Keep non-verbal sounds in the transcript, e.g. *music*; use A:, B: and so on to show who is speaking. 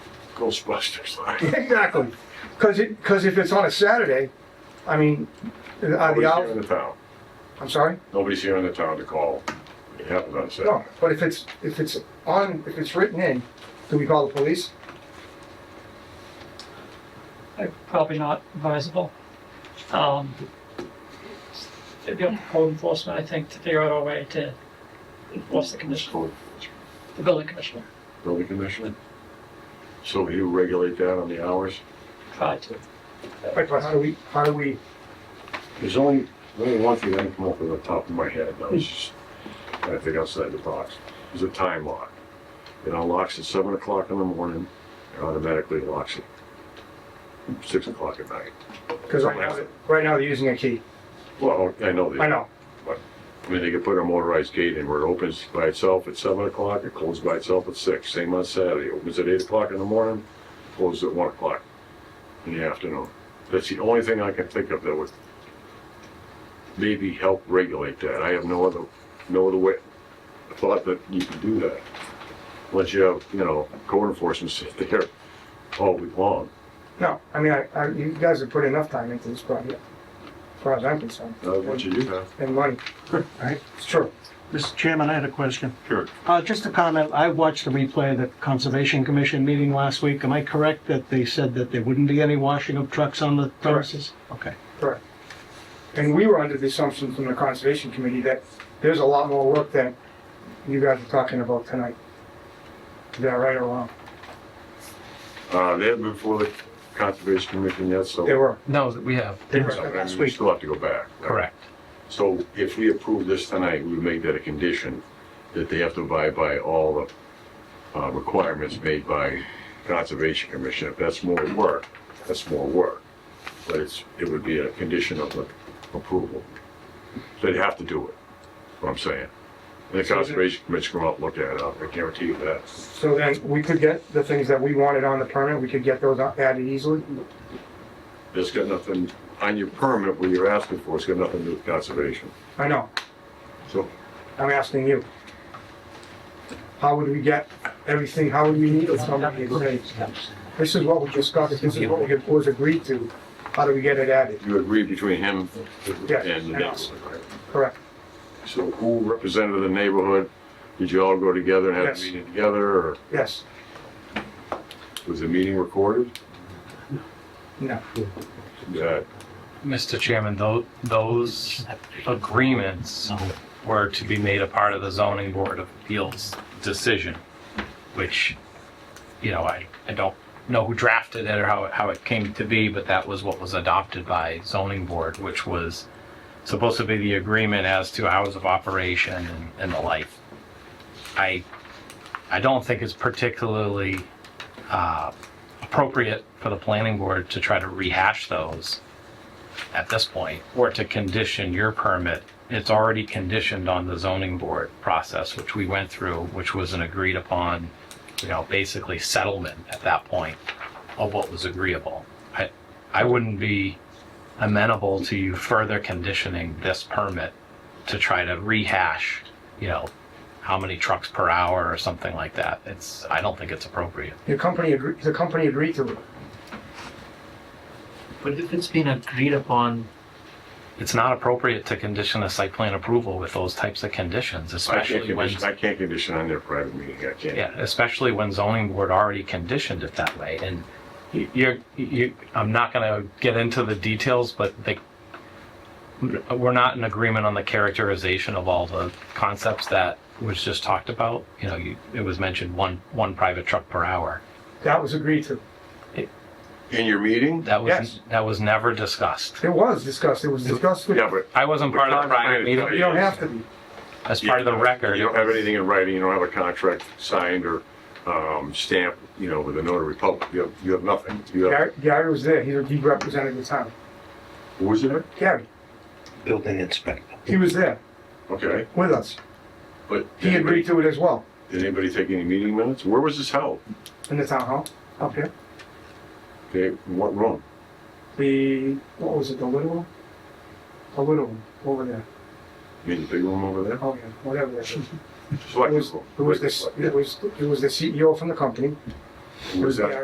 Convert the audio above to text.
A: Ghostbusters line.
B: Exactly, because it, because if it's on a Saturday, I mean, uh, are the
A: Nobody's here in
B: hours,
A: the town.
B: I'm sorry?
A: Nobody's here in the town to call. It happens on
B: No,
A: Saturday.
B: but if it's, if it's on, if it's written in, do we call the police?
C: Uh, probably not advisable. Um, it'd be up to code enforcement, I think, to figure out a way to enforce the commission,
A: So,
C: the building commissioner,
A: Building commissioner? So he would regulate that on the hours?
C: try to.
B: Right, but how do we, how do we,
A: There's only, only one thing that can come up with the top of my head, and I was just trying to think outside the box, is a time lock. It unlocks at seven o'clock in the morning, and automatically locks at six o'clock at night.
B: because right now, right now they're using a key,
A: Well, I know
B: I
A: that,
B: know,
A: I mean, they could put a motorized gate in where it opens by itself at seven o'clock, it closes by itself at six, same on Saturday, opens at eight o'clock in the morning, closes at one o'clock in the afternoon. That's the only thing I can think of that would maybe help regulate that. I have no other, no other way, thought that you could do that. Unless you have, you know, code enforcement *laughs* sit there all week long.
B: no, I mean, I, I, you guys have put enough time into this project, as far as I'm concerned,
A: Not what Uh, you do have.
B: and money.
D: Right.
B: It's true,
D: Mr. Chairman, I had a question.
A: Sure.
D: Uh, Just a comment, I watched the replay of the Conservation Commission meeting last week. Am I correct that they said that there wouldn't be any washing of trucks on the premises? Okay.
B: correct. And we were under the assumption from the conservation committee that there's a lot more work than you guys are talking about tonight. Is that right or wrong?
A: Uh, they haven't been before the conservation commission yet, so.
B: They were.
E: No, that we have.
B: They were.
A: So, I mean,
D: Last
A: we
D: week.
A: still have to go back. right?
E: Correct.
A: So if we approve this tonight, we make that a condition, that they have to abide by all the uh, requirements made by Conservation Commission. If that's more work, that's more work. But it's, it would be a condition of the approval. They'd have to do it, what I'm saying. And the Conservation Commission come out, and look at it, I guarantee you that.
B: So then we could get the things that we wanted on the permit, we could get those added easily?
A: It's got nothing, on your permit, what you're asking for, it's got nothing to do with conservation.
B: I know,
A: So
B: I'm asking you. How would we get everything, how would we meet with somebody and say, this is what we discussed, this is what we was agreed to, how do we get it added?
A: you agree between him and
B: Yes,
A: the
B: I know.
A: next one, right?
B: Correct,
A: So who represented the neighborhood? Did you all go together and have a
B: Yes.
A: meeting together, or
B: yes,
A: was the meeting recorded? Uh,
B: no,
A: That
E: Mr. Chairman, tho- those agreements were to be made a part of the zoning board of appeals decision, which, you know, I, I don't know who drafted it or how, it- how it came to be, but that was what was adopted by zoning board, which was supposed to be the agreement as to hours of operation and, and the like. I, I don't think it's particularly, uh, appropriate for the planning board to try to rehash those at this point, or to condition your permit, it's already conditioned on the zoning board process, which we went through, which was an agreed upon, you know, basically settlement at that point of what was agreeable. I, I wouldn't be amenable to you further conditioning this permit to try to rehash, you know, how many trucks per hour or something like that. It's, I don't think it's appropriate.
B: your company agreed, the company agreed to it.
F: But if it's been agreed upon,
E: It's not appropriate to condition a site plan approval with those types of conditions,
A: I can't
E: especially when.
A: condition, I can't condition on their private meeting, I can't.
E: Yeah, especially when zoning board already conditioned it that way, and you- you're, you, I'm not gonna get into the details, but they, we're not in agreement on the characterization of all the concepts that was just talked about. You know, you, it was mentioned one, one private truck per hour.
B: That was agreed to.
A: In your meeting?
E: That
B: Yes.
E: was, that was never discussed.
B: It was discussed, it was discussed with,
A: Yeah, but
E: I wasn't part of the private
B: you
E: meeting,
B: don't have to be.
E: as part of the record.
A: You don't have anything in writing, you don't have a contract signed or, um, stamped, you know, with a notary public, you have, you have nothing. You have,
B: Gary, Gary was there, he, he represented the town.
A: who was there?
B: Gary,
G: building inspector.
B: he was there
A: Okay,
B: with us.
A: but
B: He
A: did
B: agreed
A: anybody,
B: to it as well,
A: did anybody take any meeting minutes? Where was this held?
B: in the town hall, up here.
A: Okay, what room?
B: The, what was it, the little one? The little one, over there,
A: You mean the big room over there?
B: oh yeah, whatever that is. It
A: Select
B: was,
A: room.
B: it was this, it was, it was E the CEO from the company.
A: Who was that?